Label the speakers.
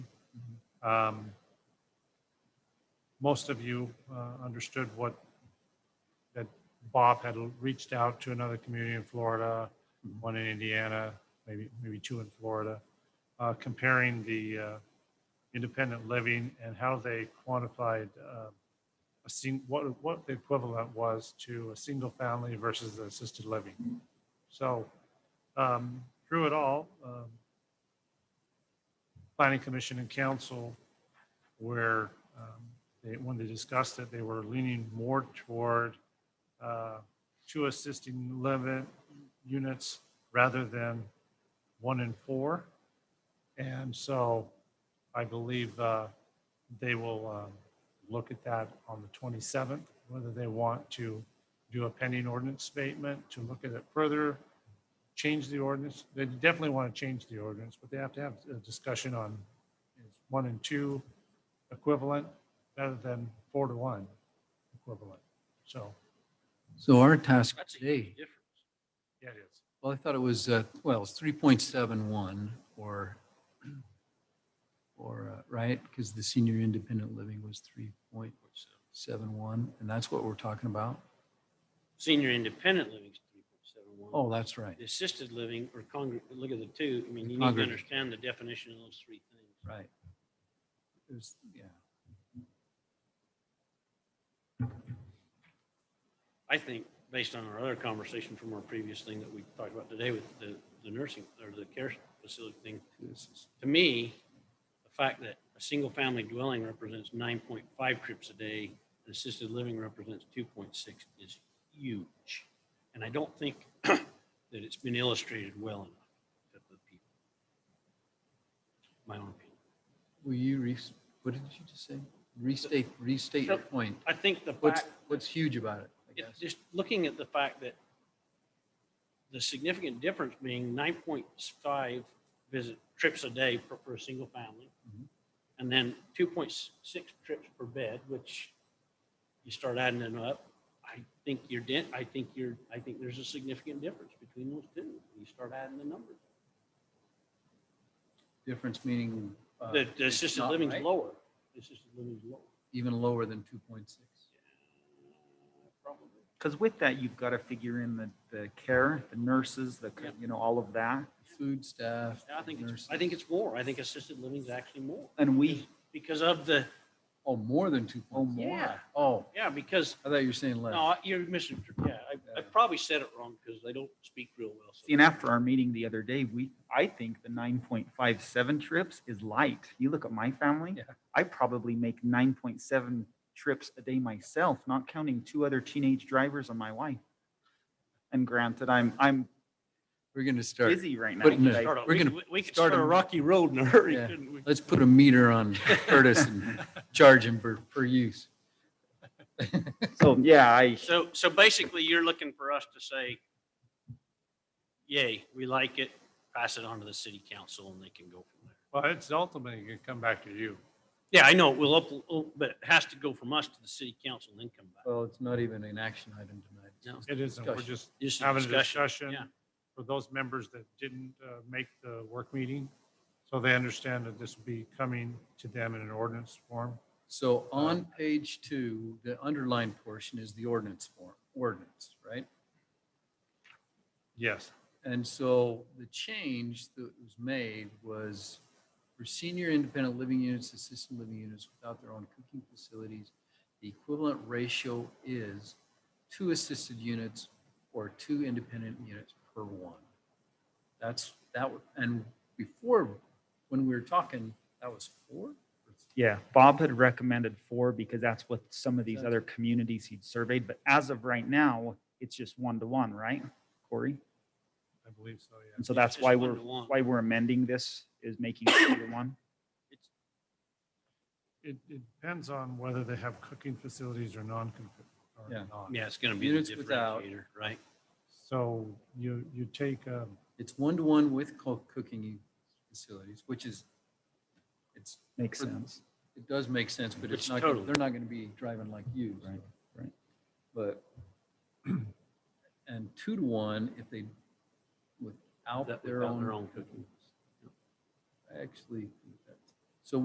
Speaker 1: Um, Most of you uh, understood what, that Bob had reached out to another community in Florida, one in Indiana, maybe, maybe two in Florida, uh, comparing the uh, independent living and how they quantified uh, a sing, what, what the equivalent was to a single family versus the assisted living. So um, through it all, um, planning commission and council where um, they, when they discussed it, they were leaning more toward uh, two assisting living units rather than one in four. And so I believe uh, they will um, look at that on the 27th, whether they want to do a pending ordinance statement, to look at it further, change the ordinance. They definitely want to change the ordinance, but they have to have a discussion on is one and two equivalent rather than four to one equivalent. So,
Speaker 2: So our task
Speaker 3: That's a
Speaker 2: today,
Speaker 3: huge difference.
Speaker 1: yeah, it is.
Speaker 2: well, I thought it was, uh, well, it's 3.71 or, or, uh, right? Because the senior independent living was 3.71 and that's what we're talking about?
Speaker 3: Senior independent living is three point seven one.
Speaker 2: Oh, that's right,
Speaker 3: The assisted living or congr, look at the two, I mean, you need to
Speaker 2: Congregate.
Speaker 3: understand the definition of those three things.
Speaker 2: right. It was, yeah.
Speaker 3: I think, based on our other conversation from our previous thing that we talked about today with the, the nursing or the care facility thing,
Speaker 2: this is-
Speaker 3: to me, the fact that a single-family dwelling represents nine point five trips a day, and assisted living represents two point six is huge. And I don't think that it's been illustrated well enough to the people. My own opinion.
Speaker 2: Will you, re- what did you just say? Restate, restate your
Speaker 3: Nope.
Speaker 2: point.
Speaker 3: I think the
Speaker 2: What's,
Speaker 3: fact,
Speaker 2: what's huge about it, I
Speaker 3: it-
Speaker 2: guess?
Speaker 3: just looking at the fact that the significant difference being nine point five visit trips a day for, for a single family.
Speaker 2: Mhm.
Speaker 3: And then two point six trips per bed, which you start adding them up. I think you're dent, I think you're, I think there's a significant difference between those two. You start adding the numbers.
Speaker 2: Difference meaning. uh,
Speaker 3: The, the
Speaker 2: it's
Speaker 3: assisted
Speaker 2: not
Speaker 3: living's
Speaker 2: right?
Speaker 3: lower. The Assisted living's lower.
Speaker 2: Even lower than 2.6.
Speaker 3: Uh, Probably.
Speaker 4: Because with that, you've got to figure in the, the care, the nurses, the, c-
Speaker 3: Yep.
Speaker 4: you know, all of that.
Speaker 2: food staff.
Speaker 3: I think it's,
Speaker 2: nurses.
Speaker 3: I think it's more. I think assisted living's actually more.
Speaker 4: And we,
Speaker 3: Because of the,
Speaker 2: Oh, more than two.
Speaker 4: oh,
Speaker 2: points.
Speaker 4: more.
Speaker 3: Yeah.
Speaker 2: Oh,
Speaker 3: yeah, because,
Speaker 2: I thought you were saying less.
Speaker 3: no, you're missing, yeah, I, I probably said it wrong because they don't speak real well.
Speaker 4: See, And after our meeting the other day, we, I think the nine point five seven trips is light. You look at my family.
Speaker 2: Yeah.
Speaker 4: I probably make nine point seven trips a day myself, not counting two other teenage drivers and my wife. And granted, I'm, I'm
Speaker 2: We're going to start.
Speaker 4: busy right now.
Speaker 2: But no.
Speaker 4: but I-
Speaker 3: Start a-
Speaker 2: We're
Speaker 3: we
Speaker 2: gonna
Speaker 3: could- We could
Speaker 2: start
Speaker 3: start a
Speaker 2: a-
Speaker 3: rocky road in a hurry,
Speaker 2: Yeah.
Speaker 3: couldn't we?
Speaker 2: Let's put a meter on Curtis and charge him per, per use.
Speaker 4: So, yeah, I,
Speaker 3: So, so basically you're looking for us to say, yay, we like it, pass it on to the city council and they can go from there.
Speaker 1: Well, it's ultimately going to come back to you.
Speaker 3: Yeah, I know, we'll up, oh, but it has to go from us to the city council and then come back.
Speaker 2: Well, it's not even an action item tonight. It's
Speaker 3: No.
Speaker 2: just-
Speaker 1: It isn't, we're
Speaker 2: Discussion.
Speaker 1: just
Speaker 3: Just a
Speaker 1: having a
Speaker 3: discussion.
Speaker 1: discussion
Speaker 3: yeah.
Speaker 1: for those members that didn't uh, make the work meeting. So they understand that this will be coming to them in an ordinance form.
Speaker 2: So on page two, the underlined portion is the ordinance form, ordinance, right?
Speaker 1: Yes,
Speaker 2: And so the change that was made was for senior independent living units, assisted living units without their own cooking facilities, the equivalent ratio is two assisted units or two independent units per one. That's, that, wa- and before, when we were talking, that was four?
Speaker 4: Yeah, Bob had recommended four because that's what some of these other communities he'd surveyed, but as of right now, it's just one to one, right, Corey?
Speaker 1: I believe so, yeah.
Speaker 4: And so
Speaker 3: It's
Speaker 4: that's
Speaker 3: just
Speaker 4: why
Speaker 3: one
Speaker 4: we're,
Speaker 3: to one.
Speaker 4: why we're amending this is making it two to one.
Speaker 1: It, it depends on whether they have cooking facilities or non or
Speaker 2: Yeah.
Speaker 1: not.
Speaker 3: Yeah, it's gonna be the
Speaker 2: Units without-
Speaker 3: differentiator, right?
Speaker 1: So you, you take, um,
Speaker 2: It's one-to-one with co- cooking facilities, which is, it's,
Speaker 4: Makes
Speaker 2: For-
Speaker 4: sense.
Speaker 2: it does make sense, but it's
Speaker 3: Which
Speaker 2: not, gonna-
Speaker 3: totally-
Speaker 2: they're not going to be driving like you. so.
Speaker 4: Right, right.
Speaker 2: But, and two to one, if they,
Speaker 3: That-
Speaker 2: without
Speaker 3: without
Speaker 2: their own.
Speaker 3: their own cooking.
Speaker 2: I actually think